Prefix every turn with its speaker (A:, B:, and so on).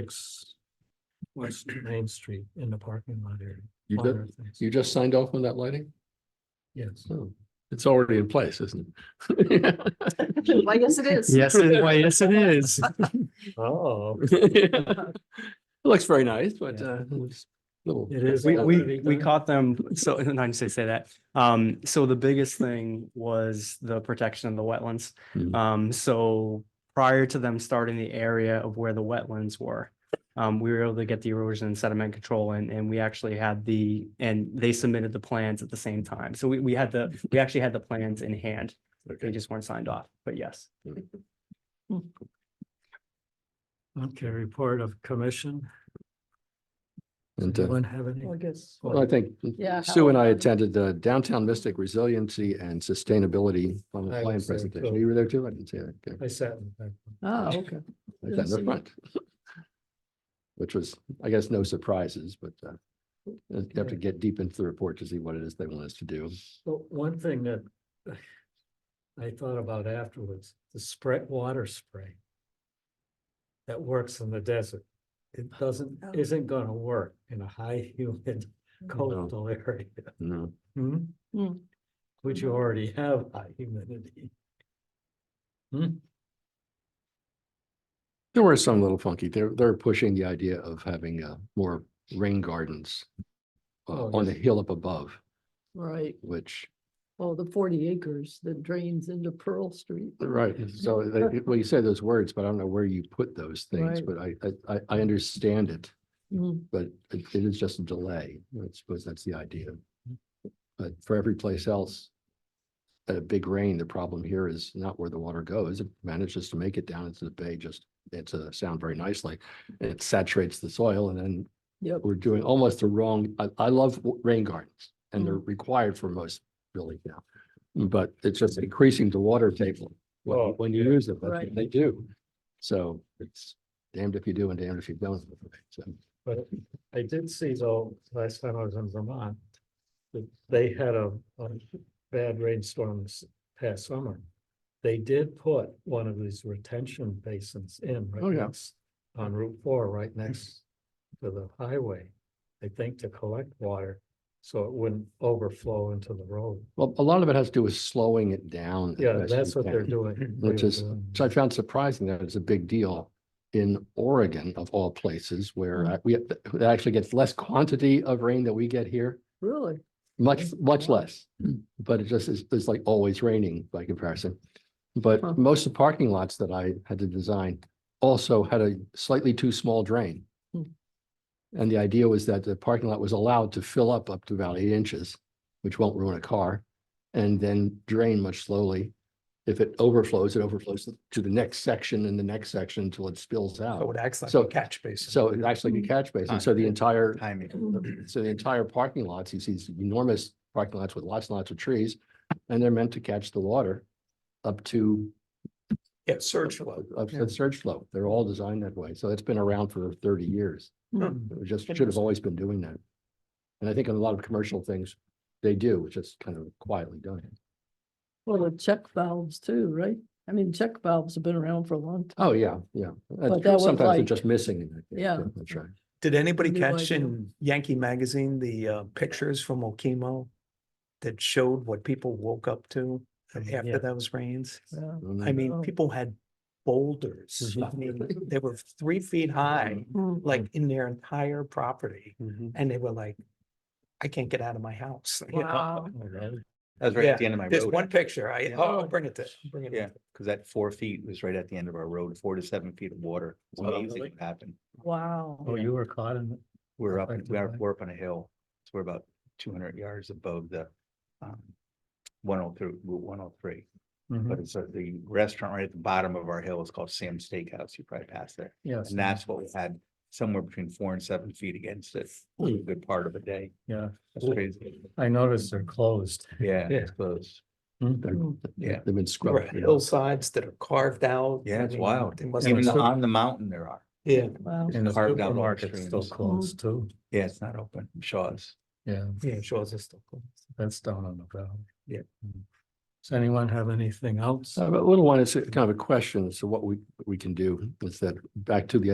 A: six West Main Street in the parking lot area.
B: You
A: among
B: just,
A: other things.
B: you just signed off on that lighting?
A: Yes.
B: Oh, It's already in place, isn't it?
C: Why, yes, it is.
D: Yes, it- why, yes, it is.
A: Oh,
B: It Looks very nice, but
A: Yeah.
B: uh, it's a little.
A: it is.
D: We, we,
A: already
D: we
A: done.
D: caught them, so, and I didn't say, say that. Um, so the biggest thing was the protection of the wetlands.
B: Hmm.
D: Um, so prior to them starting the area of where the wetlands were, um, we were able to get the erosion and sediment control and, and we actually had the, and they submitted the plans at the same time. So we, we had the, we actually had the plans in hand. They
B: Okay.
D: just weren't signed off, but yes.
A: Okay, report of commission.
B: And uh,
A: Anyone have any?
C: I guess.
B: well, I think
C: Yeah,
B: Sue and I
C: Howard.
B: attended the Downtown Mystic Resiliency and Sustainability on the
A: I
B: Plan
A: was there,
B: presentation.
A: too.
B: You were there too? I didn't see that. Okay.
A: I sat in the back.
D: Oh,
B: Ah, okay. Like that in the
C: Oh, see.
B: front. Which was, I guess, no surprises, but uh, you have to get deep into the report to see what it is they want us to do.
A: Well, one thing that I thought about afterwards, the spray, water spray that works in the desert, it doesn't,
C: Oh. Mm.
A: isn't gonna work in a high humid coastal area.
B: No,
A: Hmm?
C: Hmm.
A: Which you already have high humidity. Hmm?
B: there were some little funky, they're, they're pushing the idea of having uh, more rain gardens uh,
A: Oh,
B: on the hill up above,
C: Right,
B: which,
C: oh, the forty acres that drains into Pearl Street.
B: right, so they, well, you say those words, but I don't know where you put those things,
C: Right.
B: but I, I- I, I understand it,
C: Mm,
B: but it it is just a delay. I suppose that's the idea. But for every place else, at a big rain, the problem here is not where the water goes. It manages to make it down into the bay, just, it's a sound very nicely. and It saturates the soil and then
C: Yep,
B: we're doing almost the wrong, I, I love w- rain gardens and
A: Mm.
B: they're required for most buildings now. But it's just increasing the water table when,
A: Oh,
B: you- when you
A: yeah.
B: use them, that's what
C: Right.
B: they do. So it's damned if you do and damned if you don't. So,
A: But I did see though, last time I was in Vermont, that they had a, a bad rainstorm this past summer. They did put one of these retention basins in
B: Oh,
A: right
B: yeah.
A: next, on Route Four, right next to the highway. I think to collect water, so it wouldn't overflow into the road.
B: Well, a lot of it has to do with slowing it down. as
A: Yeah,
B: best
A: that's
B: you
A: what they're
B: can.
A: doing.
B: Which
A: They were
B: is-
A: doing
B: So I found surprising that it's a big deal in Oregon of all places where
A: Mm.
B: uh, we it actually gets less quantity of rain that we get here,
C: really,
B: much, much
C: Wow.
B: less. But it just is, it's like always raining by comparison.
C: Huh.
B: But most of the parking lots that I had to design also had a slightly too small drain.
C: Hmm.
B: And the idea was that the parking lot was allowed to fill up up to about eight inches, which won't ruin a car, and then drain much slowly. If it overflows, it overflows to the next section and the next section until it spills
E: So it
B: out.
E: would act like
B: So-
E: a catch basin.
B: So it actually
C: Hmm.
B: can catch basin. So the entire
E: Timing.
B: so the entire parking lots, you see these enormous parking lots with lots and lots of trees, and they're meant to catch the water up to
E: Yeah, surge flow.
B: up to the surge flow. They're all designed that way. So it's been around for thirty years. It was just should have
E: Interesting.
B: always been doing that. And I think in a lot of commercial things, they do, it's just kind of quietly done.
C: well, the check valves too, right? I mean, check valves have been around for a long time.
B: Oh, yeah, yeah. That's
C: But
B: true.
C: that was
B: Sometimes they're
C: like-
B: just missing. it, I think.
C: Yeah.
B: That's right.
E: Did anybody
C: New
E: catch
C: idea.
E: in Yankee Magazine, the uh, pictures from Okemo? That showed what people woke up to
F: Oh,
A: Yeah.
E: after those rains?
C: Yeah.
B: Mm-hmm.
E: I mean,
C: Oh.
E: people had boulders. I
F: Mm-hmm.
B: Mhm.
E: mean, they were three feet high,
C: Mm,
E: like in their entire property. And they were like, I can't get out of my house. you know?
C: Wow.
A: Oh,
F: That was right
E: Yeah,
F: at the end of my
E: There's
F: road,
E: one picture. I,
F: Yeah.
E: oh, I'll bring it to, bring it.
F: Yeah. because that four feet was right at the end of our road, four to seven feet of water. It's
A: Wow.
F: amazing
A: Really?
F: what happened.
A: Oh,
C: Wow,
A: you were caught in, it?
F: We're up,
A: Affected
F: we're,
A: by-
F: we're up on a hill. So we're about two hundred yards above the um, one oh three, Route one oh three. But
A: Mhm.
F: it's uh, the restaurant right at the bottom of our hill is called Sam's Steakhouse. You probably passed there.
A: yes,
F: And that's what we had somewhere between four and seven feet against it. for A good part of a day.
A: yeah,
F: That's crazy.
A: I noticed they're closed.
F: Yeah,
A: Yeah.
F: it's close. Hmm.
B: They're-
F: Yeah.
B: They've been
E: There were
B: scrubbed. you know.
E: hillsides that are carved out.
F: Yeah,
E: I
F: it's
E: mean,
F: wild.
E: It must
F: Even
E: have
F: on the mountain there are.
E: Yeah,
C: wow.
A: And the
F: Carved out all the
A: supermarket's still
F: streams.
A: closed too.
F: Yeah, it's not open. Shaw's.
A: Yeah,
E: yeah, Shaw's is still closed.
A: that's down on the valley.
F: Yeah.
A: Mm. Does anyone have anything else?
B: Uh, but A little one is kind of a question. So what we, we can do is that back to the